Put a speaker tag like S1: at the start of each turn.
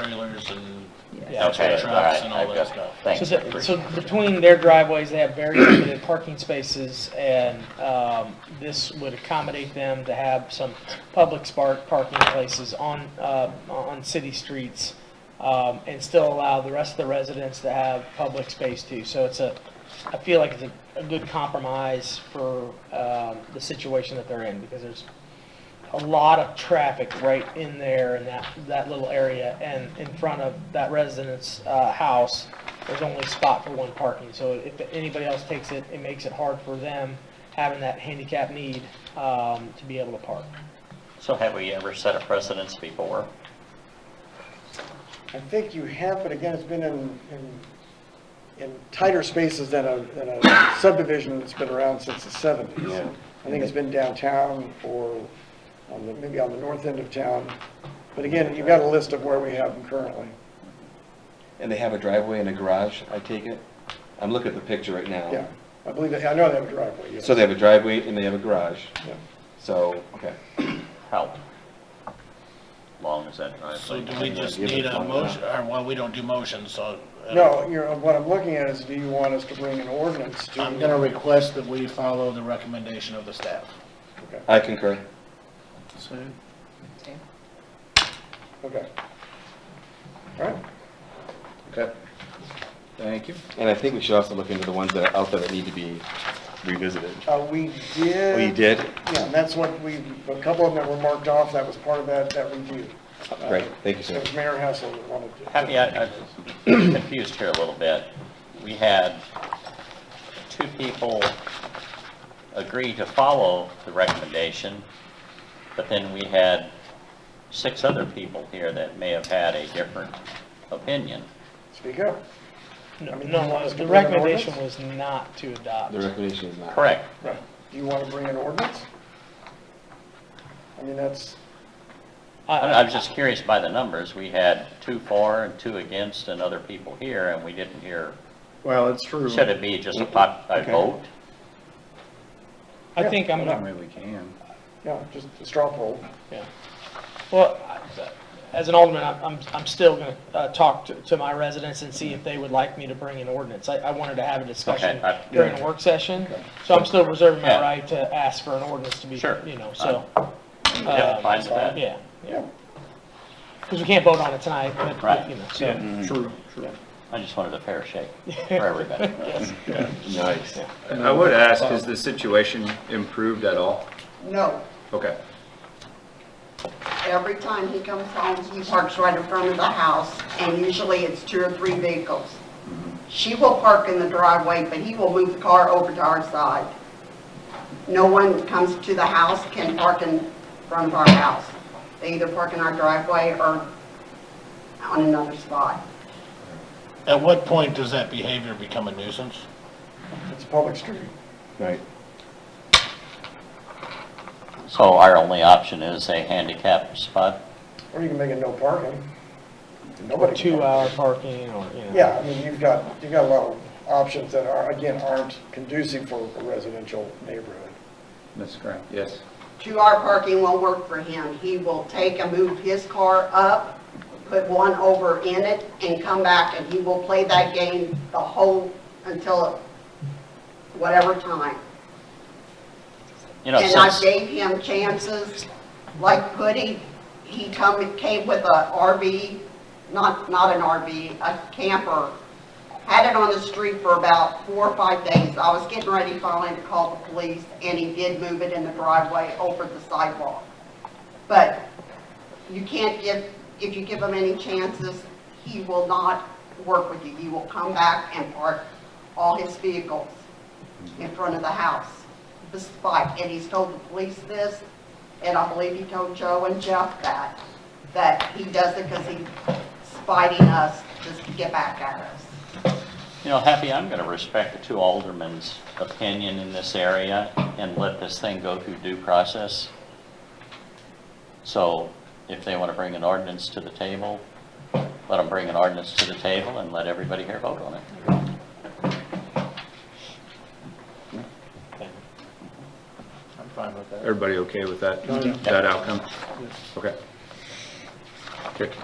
S1: trailers and
S2: Yeah.
S1: extra
S3: Okay, all right,
S1: trucks and all
S3: I've
S1: that
S3: got,
S1: stuff.
S3: thanks.
S4: So, the- so between their driveways, they have very limited parking spaces, and um, this would accommodate them to have some public spark parking places on, uh, on city streets, um, and still allow the rest of the residents to have public space too. So it's a, I feel like it's a, a good compromise for um, the situation that they're in, because there's a lot of traffic right in there in that, that little area, and in front of that resident's uh, house, there's only a spot for one parking, so if anybody else takes it, it makes it hard for them having that handicap need um, to be able to park.
S3: So have we ever set a precedence before?
S5: I think you have, but again, it's been in, in, in tighter spaces than a, than a subdivision that's been around since the seventies.
S6: Yeah.
S5: I think it's been downtown or on the, maybe on the north end of town. But again, you've got a list of where we have them currently.
S6: And they have a driveway and a garage, I take it? I'm looking at the picture right now.
S5: Yeah, I believe, that- I know they have a driveway, yes.
S6: So they have a driveway and they have a garage,
S5: Yeah.
S6: so, okay.
S3: How long is that driveway?
S1: So do we just need a motion, or, well, we don't do motions, so. uh,
S5: No, you're, what I'm looking at is, do you want us to bring an ordinance to?
S1: I'm gonna request that we follow the recommendation of the staff.
S5: Okay,
S6: I concur.
S5: okay. All right,
S6: Okay. Thank you. And I think we should also look into the ones that are out there that need to be revisited.
S5: uh, we did.
S6: Oh, you did?
S5: Yeah, and that's what we, a couple of them that were marked off, that was part of that, that review.
S6: Uh, Great, thank you, sir.
S5: It was Mayor Hassel that wanted to.
S3: Have you, I'm confused here a little bit. We had two people agree to follow the recommendation, but then we had six other people here that may have had a different opinion.
S5: Speak up. I
S4: No,
S5: mean, do you want
S4: no,
S5: us to
S4: the
S5: bring an
S4: recommendation
S5: ordinance?
S4: was not to adopt.
S6: The recommendation is not.
S3: Correct.
S5: Right. Do you want to bring an ordinance? I mean, that's,
S3: I don't know, I was just curious by the numbers. We had two for and two against and other people here, and we didn't hear,
S7: Well, it's true.
S3: should it be just a pop, a
S5: Okay.
S3: vote?
S4: I think
S7: I
S4: I'm,
S7: don't
S4: gonna-
S7: really can.
S5: yeah, just a straw poll.
S4: yeah. Well, I- as an alderman, I'm, I'm, I'm still gonna uh, talk to, to my residents and see if they would like me to bring an ordinance. I, I wanted to have a discussion
S3: Okay, I-
S4: during a work session, so I'm still reserving my
S3: Yeah.
S4: right to ask for an ordinance to be,
S3: Sure. Uh,
S4: you know, so.
S3: Yeah,
S4: um,
S3: fine with that.
S4: Yeah,
S5: Yeah.
S4: because we can't vote on it tonight, but,
S3: Right.
S4: you know, so.
S1: Mm-hmm.
S7: True, true.
S3: I just wanted a fair shake for everybody.
S6: Nice.
S7: I would ask, has the situation improved at all?
S8: No,
S7: Okay.
S8: every time he comes home, he parks right in front of the house, and usually it's two or three vehicles. She will park in the driveway, but he will move the car over to our side. No one comes to the house can park in front of our house. They either park in our driveway or on another spot.
S1: At what point does that behavior become a nuisance?
S5: It's a public street.
S6: Right.
S3: So our only option is a handicap spot?
S5: Or you can make it no parking. Nobody. can park.
S4: Two-hour parking or, you know.
S5: Yeah, I mean, you've got, you've got a lot of options that are, again, aren't conducive for a residential neighborhood.
S7: Ms. Grant? Yes.
S8: Two-hour parking won't work for him. He will take and move his car up, put one over in it, and come back, and he will play that game the whole, until whatever time.
S3: You know,
S8: And I
S3: since,
S8: gave him chances, like Putty, he come, came with a RV, not, not an RV, a camper. Had it on the street for about four or five days. I was getting ready finally to call the police, and he did move it in the driveway over the sidewalk. But you can't give, if you give him any chances, he will not work with you. He will come back and park all his vehicles in front of the house, the spike, and he's told the police this, and I believe he told Joe and Jeff that, that he does it because he's spiting us just to get back at us.
S3: you know, Happy, I'm going to respect the two aldermen's opinion in this area and let this thing go through due process. So if they want to bring an ordinance to the table, let them bring an ordinance to the table and let everybody here vote on it.
S1: I'm fine with that.
S7: Everybody okay with that, that outcome? Okay. Good.